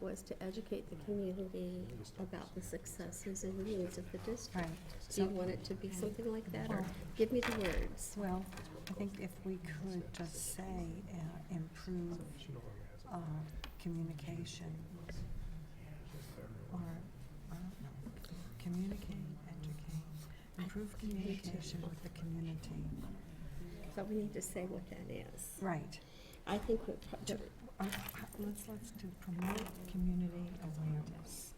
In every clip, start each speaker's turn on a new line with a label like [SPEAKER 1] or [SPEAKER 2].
[SPEAKER 1] was to educate the community about the successes and needs of the district.
[SPEAKER 2] Right.
[SPEAKER 1] Do you
[SPEAKER 2] So-
[SPEAKER 1] want it to be something like that, or
[SPEAKER 2] Well-
[SPEAKER 1] give me the words?
[SPEAKER 2] Well, I think if we could just say, uh, improve uh, communication, or, I don't know, communicate, educate, improve communication with the community.
[SPEAKER 1] So we need to say what that is.
[SPEAKER 2] Right.
[SPEAKER 1] I think we're, pro-
[SPEAKER 2] Ju- uh, Let's, let's do promote community awareness.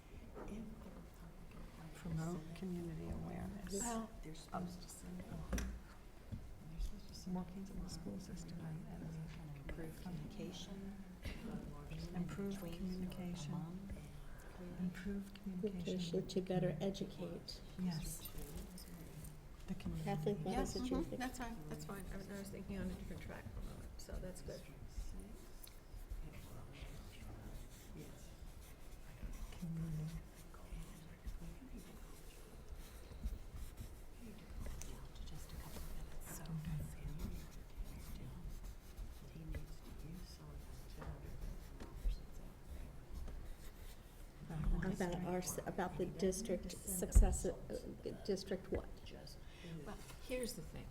[SPEAKER 2] Promote community awareness.
[SPEAKER 3] Well,
[SPEAKER 2] I'm Working in the school system
[SPEAKER 3] improve communication.
[SPEAKER 2] Improve
[SPEAKER 3] between
[SPEAKER 2] communication.
[SPEAKER 3] among
[SPEAKER 2] Improve communication.
[SPEAKER 1] communication to better educate.
[SPEAKER 2] Yes. The community.
[SPEAKER 1] Kathleen, what
[SPEAKER 4] Yeah,
[SPEAKER 1] is it
[SPEAKER 3] mm-hmm.
[SPEAKER 1] you
[SPEAKER 4] mhm,
[SPEAKER 1] think?
[SPEAKER 4] that's fine, that's fine. I was- I was thinking on a different track for a moment, so that's good.
[SPEAKER 2] Community.
[SPEAKER 3] Just a couple of minutes, so.
[SPEAKER 2] Okay.
[SPEAKER 3] He needs to use some of that to help him.
[SPEAKER 2] That one is
[SPEAKER 1] About
[SPEAKER 2] right.
[SPEAKER 1] our, s- about the district success, uh, district what?
[SPEAKER 3] Well, here's the thing,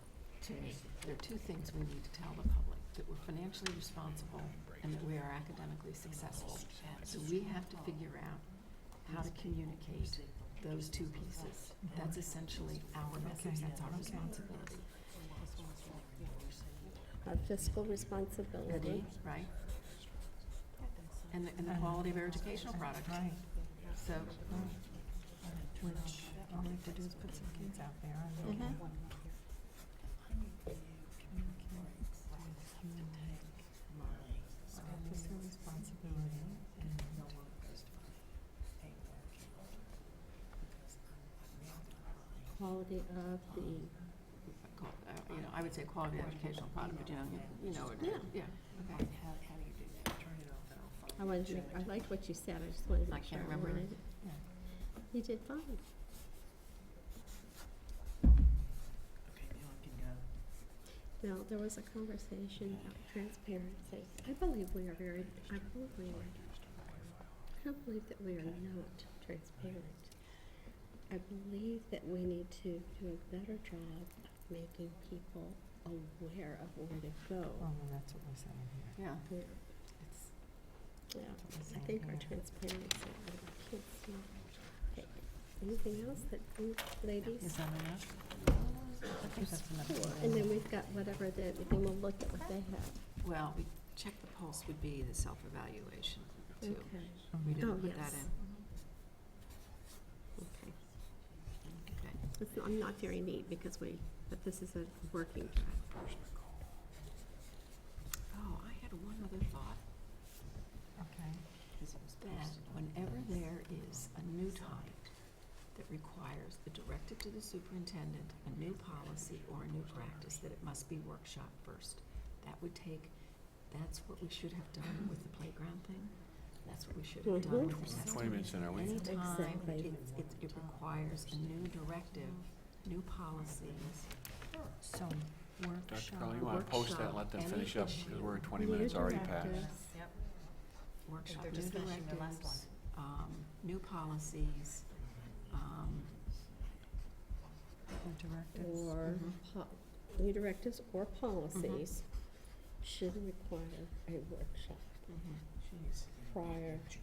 [SPEAKER 3] to me, there are two things we need to tell the public, that we're financially responsible and that we are academically successful. So we have to figure out how to communicate those two pieces. That's essentially our message, that's our responsibility.
[SPEAKER 1] Our fiscal responsibility.
[SPEAKER 3] Ready, right? And, the- and the quality of our educational product,
[SPEAKER 2] Right.
[SPEAKER 3] so,
[SPEAKER 2] Which, all we have to do is put some kids out there and they can. communicate with community. Our fiscal responsibility and
[SPEAKER 1] Quality of the,
[SPEAKER 3] qual- uh, you know, I would say quality of educational product, but you know, you- you know, it-
[SPEAKER 1] Yeah.
[SPEAKER 3] yeah, okay.
[SPEAKER 1] I wanted to, make- I liked what you said, I just wanted to
[SPEAKER 3] I
[SPEAKER 1] make sure
[SPEAKER 3] can't
[SPEAKER 1] I
[SPEAKER 3] remember.
[SPEAKER 1] wanted it.
[SPEAKER 2] Yeah.
[SPEAKER 1] You did fine. Now, there was a conversation about transparency. I believe we are very, I believe we are, I don't believe that we are not transparent. I believe that we need to do a better job of making people aware of where to go.
[SPEAKER 2] Well, then that's what we're saying here.
[SPEAKER 3] Yeah,
[SPEAKER 1] Yeah,
[SPEAKER 3] it's,
[SPEAKER 1] yeah.
[SPEAKER 2] That's what
[SPEAKER 1] I
[SPEAKER 2] we're saying
[SPEAKER 1] think our
[SPEAKER 2] here.
[SPEAKER 1] transparency, I can't see. Okay, Anything else that, you ladies?
[SPEAKER 3] is that enough?
[SPEAKER 2] I think that's enough.
[SPEAKER 1] Cool. And then we've got whatever the, then we'll look at what they have.
[SPEAKER 3] Well, we, check the pulse would be the self-evaluation too.
[SPEAKER 1] Okay.
[SPEAKER 3] We
[SPEAKER 2] Mhm.
[SPEAKER 1] Oh,
[SPEAKER 3] didn't put that
[SPEAKER 1] yes.
[SPEAKER 3] in.
[SPEAKER 1] Okay.
[SPEAKER 3] Okay.
[SPEAKER 1] It's not, I'm not very neat because we, but this is a working draft.
[SPEAKER 3] Oh, I had one other thought,
[SPEAKER 2] Okay.
[SPEAKER 3] that whenever there is a new topic that requires the directive to the superintendent, a new policy or a new practice, that it must be workshop first. That would take, that's what we should have done with the playground thing, that's what we should have done with the testing.
[SPEAKER 5] Twenty minutes in, are we?
[SPEAKER 3] Anytime
[SPEAKER 1] Exactly.
[SPEAKER 3] it, it, it requires a new directive, new policies,
[SPEAKER 2] So
[SPEAKER 5] Dr.
[SPEAKER 2] workshop.
[SPEAKER 5] Carl, you wanna post that and let them
[SPEAKER 3] Workshop,
[SPEAKER 5] finish up, because
[SPEAKER 3] any
[SPEAKER 5] we're twenty
[SPEAKER 1] New
[SPEAKER 5] minutes already past. Oh,
[SPEAKER 1] directives.
[SPEAKER 3] workshop,
[SPEAKER 4] They're
[SPEAKER 3] new
[SPEAKER 4] just finishing their last
[SPEAKER 3] directives, um, new policies, um,
[SPEAKER 2] The directives.
[SPEAKER 1] Or,
[SPEAKER 3] Mhm.
[SPEAKER 1] po- new directives or policies should require a workshop
[SPEAKER 3] mhm.
[SPEAKER 4] Mm-hmm.
[SPEAKER 1] prior to.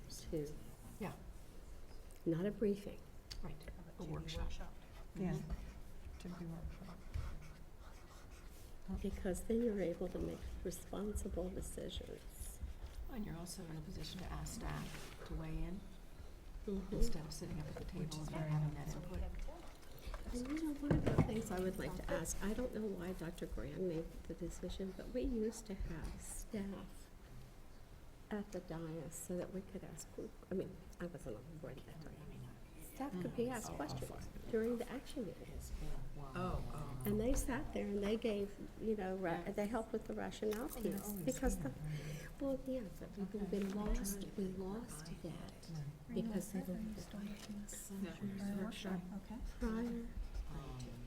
[SPEAKER 3] Yeah.
[SPEAKER 1] Not a briefing.
[SPEAKER 3] Right, a workshop.
[SPEAKER 2] Yeah.
[SPEAKER 3] Mhm.
[SPEAKER 2] To be workshop.
[SPEAKER 1] Because then you're able to make responsible decisions.
[SPEAKER 3] And you're also in a position to ask staff to weigh in
[SPEAKER 1] Mhm.
[SPEAKER 3] instead of sitting up at the
[SPEAKER 2] Which
[SPEAKER 3] table
[SPEAKER 2] is
[SPEAKER 3] and
[SPEAKER 2] very
[SPEAKER 3] having that
[SPEAKER 2] helpful.
[SPEAKER 3] input.
[SPEAKER 1] And you know, one of the things I would like to ask, I don't know why Dr. Graham made the decision, but we used to have staff at the dais so that we could ask, I mean, I wasn't on the board at that time. Staff could be asked
[SPEAKER 5] I'll- I'll
[SPEAKER 1] questions
[SPEAKER 5] find it.
[SPEAKER 1] during the action meeting.
[SPEAKER 3] Oh,
[SPEAKER 1] And they sat there and they gave, you know, ra- they helped with the rationale
[SPEAKER 2] They're
[SPEAKER 1] piece,
[SPEAKER 2] always
[SPEAKER 1] because
[SPEAKER 2] here,
[SPEAKER 1] the,
[SPEAKER 2] right?
[SPEAKER 1] well, yeah, but we- we lost, we lost that
[SPEAKER 2] Right.
[SPEAKER 1] because they were
[SPEAKER 3] Yeah.
[SPEAKER 4] Workshop.
[SPEAKER 1] prior
[SPEAKER 2] Oh,